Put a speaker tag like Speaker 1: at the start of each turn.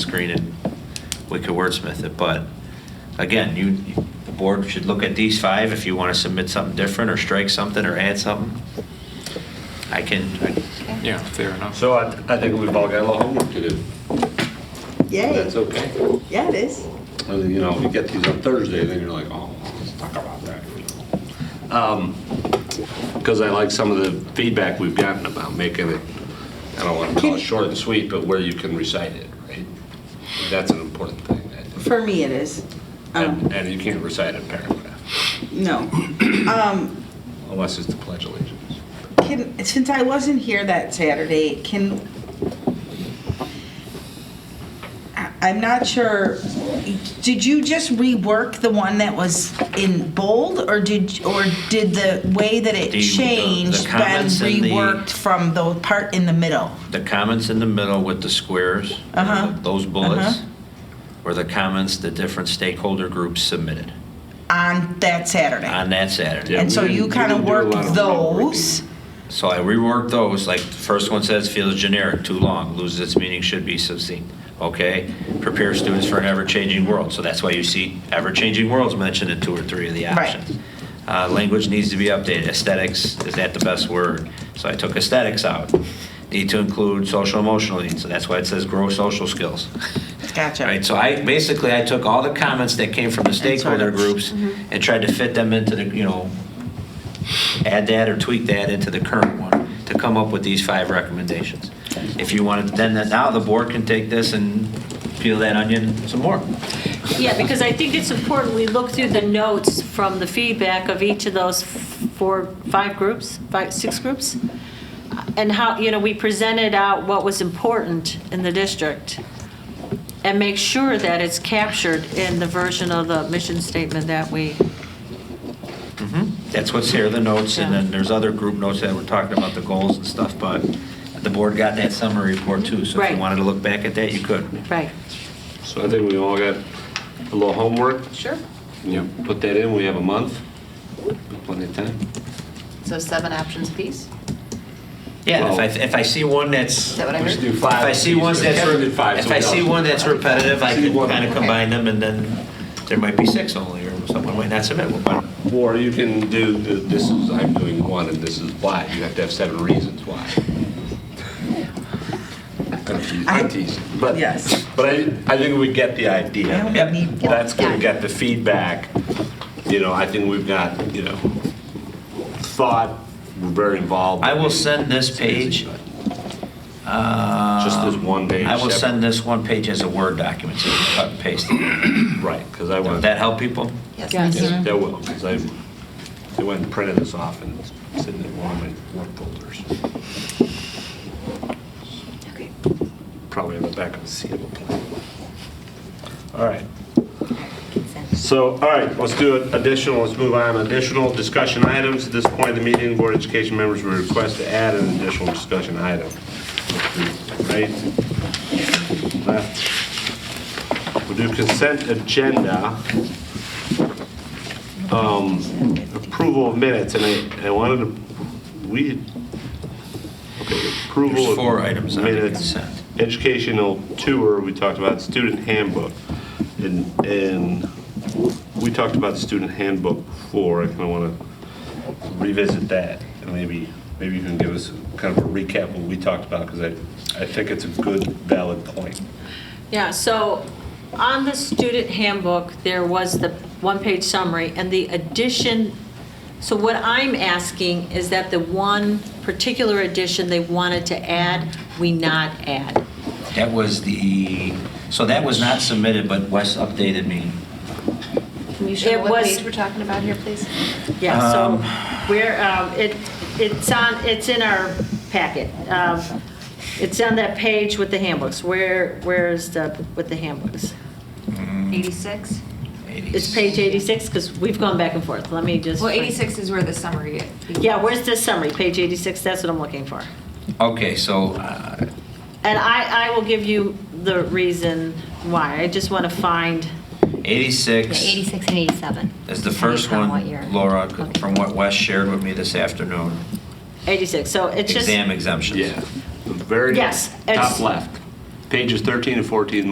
Speaker 1: screen and we could wordsmith it, but again, you, the board should look at these five if you want to submit something different or strike something or add something. I can, I-
Speaker 2: Yeah, fair enough.
Speaker 3: So I, I think we've all got a lot of homework to do.
Speaker 4: Yay.
Speaker 3: That's okay.
Speaker 4: Yeah, it is.
Speaker 3: And then, you know, you get these on Thursday, then you're like, oh, let's talk about that. Because I like some of the feedback we've gotten about making it, I don't want to call it short and sweet, but where you can recite it, right? That's an important thing. I think.
Speaker 4: For me, it is. Um,
Speaker 3: And, and you can't recite a paragraph
Speaker 4: no.
Speaker 3: unless it's the Pledge of Allegiance.
Speaker 4: Can, since I wasn't here that Saturday, can, I- I'm not sure, did you just rework the one that was in bold, or did, or did the way that it
Speaker 1: The- the- the
Speaker 4: changed been
Speaker 1: comments in the-
Speaker 4: reworked from the part in the middle?
Speaker 1: the comments in the middle with the squares,
Speaker 4: Uh-huh.
Speaker 1: those bullets,
Speaker 4: Uh-huh.
Speaker 1: were the comments the different stakeholder groups submitted
Speaker 4: On that Saturday?
Speaker 1: on that Saturday.
Speaker 3: Yeah,
Speaker 4: And
Speaker 3: we
Speaker 4: so
Speaker 3: didn't-
Speaker 4: you
Speaker 3: we
Speaker 4: kind of
Speaker 3: didn't do a lot
Speaker 4: worked
Speaker 3: of reworking.
Speaker 4: those?
Speaker 1: So I reworked those, like, the first one says feels generic, too long, loses its meaning, should be succinct, okay? Prepare students for an ever-changing world, so that's why you see ever-changing worlds mentioned in two or three of the
Speaker 4: Right.
Speaker 1: options. Uh, language needs to be updated, aesthetics, is that the best word? So I took aesthetics out. Need to include social emotional needs, so that's why it says grow social skills.
Speaker 4: Gotcha.
Speaker 1: Right, so I, basically, I took all the comments that came from the
Speaker 4: sort of- mm-hmm.
Speaker 1: stakeholder groups and tried to fit them into the, you know, add that or tweak that into the current one to come up with these five recommendations. If you wanted, then that- now the board can take this and peel that onion some more.
Speaker 5: Yeah, because I think it's important, we look through the notes from the feedback of each of those four, five groups, five, six groups, and how, you know, we presented out what was important in the district, and make sure that it's captured in the version of the mission statement that we,
Speaker 1: That's what's here, the notes, and then there's other group notes that were talking about the goals and stuff, but the board got that summary report too, so if you
Speaker 5: Right.
Speaker 1: wanted to look back at that, you could.
Speaker 5: right.
Speaker 3: So I think we all got a little homework.
Speaker 6: Sure.
Speaker 3: You know, put that in, we have a month, plenty of time.
Speaker 6: So seven options apiece?
Speaker 1: Yeah, and if I,
Speaker 3: Well-
Speaker 1: if I see one that's
Speaker 6: Is that what I
Speaker 3: We should
Speaker 6: heard?
Speaker 3: do
Speaker 1: If
Speaker 3: five.
Speaker 1: I see ones that's,
Speaker 3: Kevin did five,
Speaker 1: if I
Speaker 3: somebody
Speaker 1: see
Speaker 3: else
Speaker 1: one
Speaker 3: did
Speaker 1: that's
Speaker 3: five.
Speaker 1: repetitive, I
Speaker 3: See
Speaker 1: can
Speaker 3: one.
Speaker 1: kind of
Speaker 6: Okay.
Speaker 1: combine them, and then there might be six only, or someone might not submit one. but-
Speaker 3: Or you can do, th- this is, I'm doing one and this is why. You have to have seven reasons why. I'm teasing, I'm teasing. But,
Speaker 4: Yes.
Speaker 3: but I, I think we get the
Speaker 4: I
Speaker 3: idea.
Speaker 4: don't
Speaker 1: Yep.
Speaker 4: need-
Speaker 3: That's gonna get the feedback. You know, I think we've got, you know, thought, we're very involved.
Speaker 1: I will send this page, uh,
Speaker 3: Just this one Mm-hmm. page.
Speaker 1: I will
Speaker 3: separate-
Speaker 1: send this one page as a Word document, so you can cut and paste it.
Speaker 3: Right, because I
Speaker 1: Would
Speaker 3: want.
Speaker 1: that help people?
Speaker 6: Yes.
Speaker 5: Yes.
Speaker 3: Yes, that will, because I, they went and printed this off and it's in one of my work folders.
Speaker 6: Okay.
Speaker 3: Probably in the back of the seat of a plane. All right. So, all right, let's do it. additional, let's move on, additional discussion items. At this point in the meeting, Board of Education members will request to add an additional discussion item. Right? Left. We'll do consent agenda. Um, Approval of minutes, and I, I wanted to, we, okay, approval of.
Speaker 1: There's four items on the
Speaker 3: minutes.
Speaker 1: consent.
Speaker 3: Educational tour, we talked about student handbook. And, and we talked about student handbook before, I kind of want to revisit that. And maybe, maybe you can give us kind of a recap of what we talked about, because I, I think it's a good valid point.
Speaker 5: Yeah, so on the student handbook, there was the one-page summary and the addition. So what I'm asking is that the one particular addition they wanted to add, we not add.
Speaker 1: That was the, so that was not submitted, but Wes updated me.
Speaker 6: Can you show
Speaker 5: It
Speaker 6: what
Speaker 5: was-
Speaker 6: page we're talking about here, please?
Speaker 5: Yeah,
Speaker 1: Um,
Speaker 5: so we're, um, it, it's on, it's in our packet. Um, It's on that page with the handbooks. Where, where is the, with the handbooks?
Speaker 7: 86?
Speaker 5: It's page 86, because we've gone back and forth. Let me just.
Speaker 7: Well, 86 is where the summary.
Speaker 5: Yeah, where's the summary? Page 86, that's what I'm looking for.
Speaker 1: Okay, so, uh,
Speaker 5: And I, I will give you the reason why. I just want to find,
Speaker 7: Yeah,
Speaker 1: 86.
Speaker 7: 86 and 87.
Speaker 1: Is the first
Speaker 7: Depending on what
Speaker 1: one,
Speaker 7: year.
Speaker 1: Laura,
Speaker 7: Okay.
Speaker 1: from what Wes shared with me this afternoon,
Speaker 5: 86, so it's just.
Speaker 1: exam exemptions.
Speaker 3: Yeah, the very
Speaker 5: Yes, it's-
Speaker 3: top left. Pages 13 and 14,